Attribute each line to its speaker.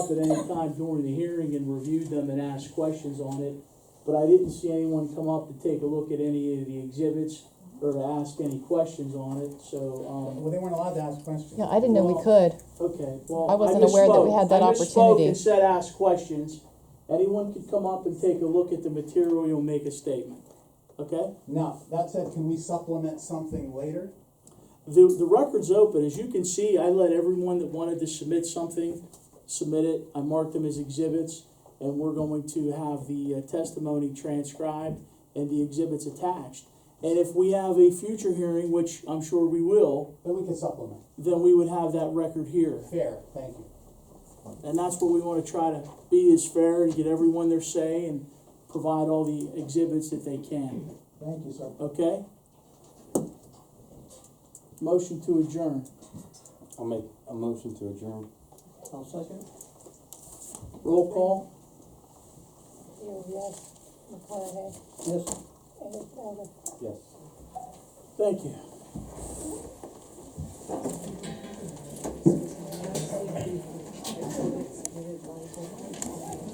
Speaker 1: at any time during the hearing and reviewed them and asked questions on it. But I didn't see anyone come up to take a look at any of the exhibits or to ask any questions on it, so, um,
Speaker 2: Well, they weren't allowed to ask questions.
Speaker 3: Yeah, I didn't know we could.
Speaker 1: okay, well.
Speaker 3: I wasn't aware that we
Speaker 1: misspoke.
Speaker 3: had that
Speaker 1: I misspoke
Speaker 3: opportunity.
Speaker 1: and said ask questions. Anyone could come up and take a look at the material and make a statement, okay?
Speaker 2: Now, that said, can we supplement something later?
Speaker 1: The, the record's open, as you can see, I let everyone that wanted to submit something, submit it, I marked them as exhibits, and we're going to have the uh, testimony transcribed and the exhibits attached. And if we have a future hearing, which I'm sure we will,
Speaker 2: Then we can supplement.
Speaker 1: then we would have that record here.
Speaker 2: Fair, thank you.
Speaker 1: And that's what we wanna try to be, is fair and get everyone their say and provide all the exhibits that they can,
Speaker 2: Thank you, sir.
Speaker 1: okay? Motion to adjourn.
Speaker 4: I'll make a motion to adjourn.
Speaker 2: I'll second.
Speaker 1: Roll call.
Speaker 5: Steele, yes. McConaughey,
Speaker 1: Yes.
Speaker 5: Ennis, Elder.
Speaker 4: Yes.
Speaker 1: Thank you.